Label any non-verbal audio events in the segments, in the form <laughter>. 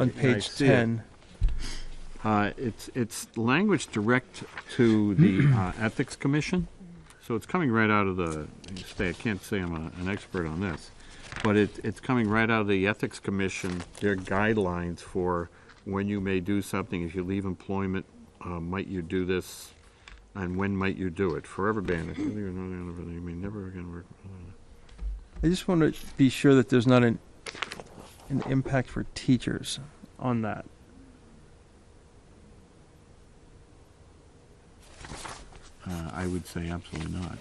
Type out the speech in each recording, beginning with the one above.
on I page see it. 10. Uh, It's, it's language direct to the uh, Ethics Commission, so it's coming right out of the, say, I can't say I'm a- an expert on this, but it, it's coming right out of the Ethics Commission, their guidelines for when you may do something, if you leave employment, uh, might you do this, and when might you do it, forever banned, if you leave another company, you may never again work. I just want to be sure that there's not an, an impact for teachers on that. Uh, I would say absolutely not.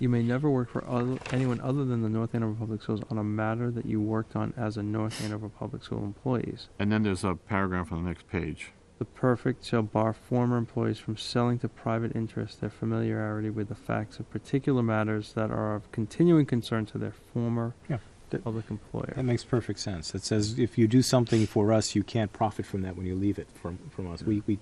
You may never work for other, anyone other than the North Andover Public Schools on a matter that you worked on as a North Andover Public School employees. And then there's a paragraph on the next page. The perfect shall bar former employees from selling to private interests their familiarity with the facts of particular matters that are of continuing concern to their former Yeah. public employer. That makes perfect sense. It says if you do something for us, you can't profit from that when you leave it from, from us. We, we,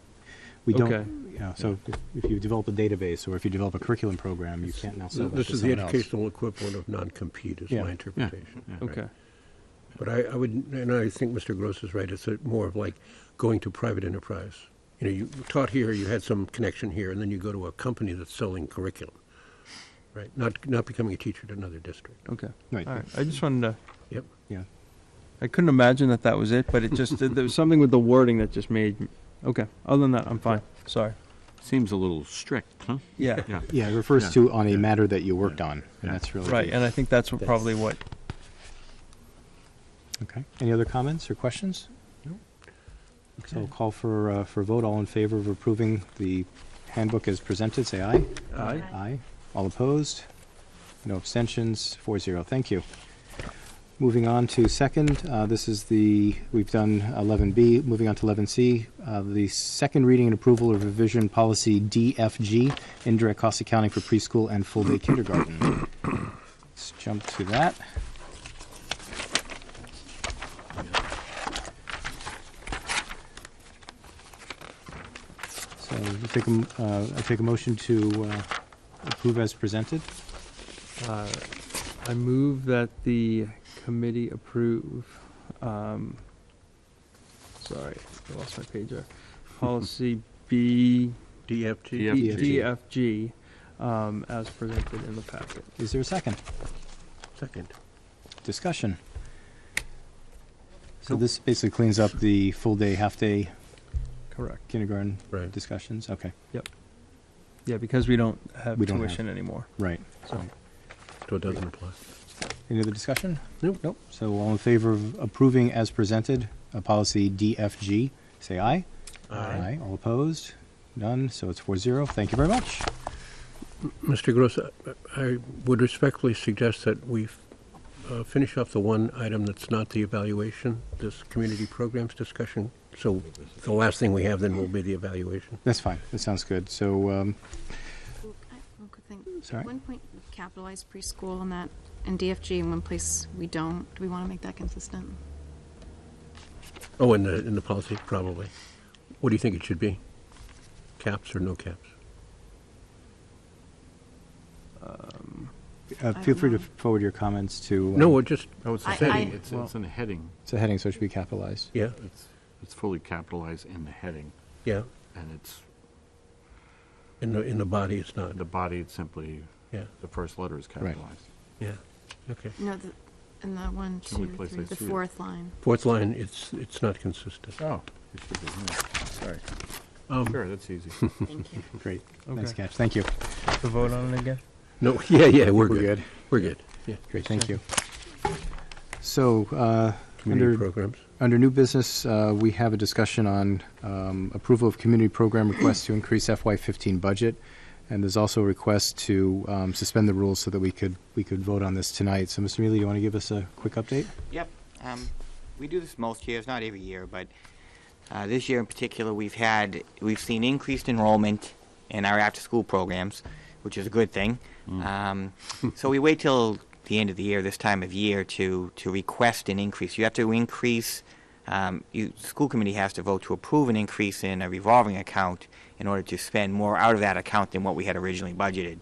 we Okay. don't, you know, so if if you develop a database or if you develop a curriculum program, you can't now sell that to This is the someone else. educational equivalent of non-compete, is Yeah. my Yeah. interpretation. Yeah. okay. But I, I would, and I think Mr. Gross is right, it's a- more of like going to private enterprise. You know, you taught here, you had some connection here, and then you go to a company that's selling curriculum, right? Not, not becoming a teacher at another district. Okay. Right. All right. I just wanted to. Yep. Yeah. I couldn't imagine that that was it, but it just there was something with the wording that just made. m- Okay. Other than that, I'm fine. Sorry. Seems a little strict, huh? Yeah. Yeah. Yeah, it refers Yeah. to on a matter that you worked on, Yeah. and that's really. Right. the- And I think that's what That's- probably what. Okay. Any other comments or questions? No. So I'll call for, uh, for a vote. All in favor of approving the handbook as presented, say aye. Aye. Aye. All opposed? No abstentions, four zero. Thank you. Moving on to second, uh, this is the, we've done 11B, moving on to 11C, uh, the second reading and approval of revision policy DFG, indirect cost accounting for preschool and full-day kindergarten. Let's jump to that. So I take a, m- uh, I take a motion to uh, approve as presented. Uh, I move that the committee approve. Um, sorry, I lost my <laughs> pager. Policy B E, Yeah. DFT? D- DFG. DFG, um, as presented in the packet. Is there a second? Second. Discussion. So this basically cleans up the full day, half day Correct. kindergarten Right. discussions. Okay, Yeah, because we don't have We don't have- tuition anymore. right. So. So it doesn't apply. Any other discussion? Nope. Nope. So all in favor of approving as presented, uh, policy DFG, say aye. Aye. All opposed? None. So it's four zero. Thank you very much. Mr. Gross, I- I would respectfully suggest that we uh, finish off the one item that's not the evaluation, this community programs discussion. So the last thing we have then will be the evaluation. That's fine. That sounds good. So, um, Well, I- One quick thing. Sorry? One point, we capitalized preschool and that, and DFG in one place we don't. Do we want to make that consistent? Oh, in the, in the policy, probably. What do you think it should be? Caps or no caps? uh, I feel don't free to know. forward your comments to. uh, No, we're just, Oh, it's a I- heading, I- it's, it's in a heading. It's a heading, so it should be capitalized. yeah, It's, it's fully capitalized in the heading, yeah. and it's, In the, in the body, it's not. the body, it's simply, Yeah, the first letter is capitalized. yeah, okay. No, the, in the one, the only two, place three, I the see it. fourth line. Fourth line, it's, it's not consistent. Oh. It should be, yeah. Sorry. Um, Sure, that's easy. Thank you. Great. Nice Okay. catch. Thank you. To vote on it again. No, <laughs> yeah, yeah, we're We're good. good. We're good, yeah. Great. Thank you. So, uh, Community under, programs. under new business, uh, we have a discussion on um, approval of community program requests to increase FY15 budget. And there's also a request to um, suspend the rules so that we could, we could vote on this tonight. So, Mr. Mealy, do you want to give us a quick update? Yep. Um, we do this most years, not every year, but uh, this year in particular, we've had we've seen increased enrollment in our after-school programs, which is a good thing. Um, <laughs> so we wait till the end of the year, this time of year, to to request an increase. You have to increase. Um, you, the school committee has to vote to approve an increase in a revolving account in order to spend more out of that account than what we had originally budgeted.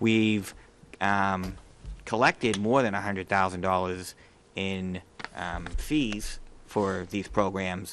We've um, collected more than $100,000 in um, fees for these programs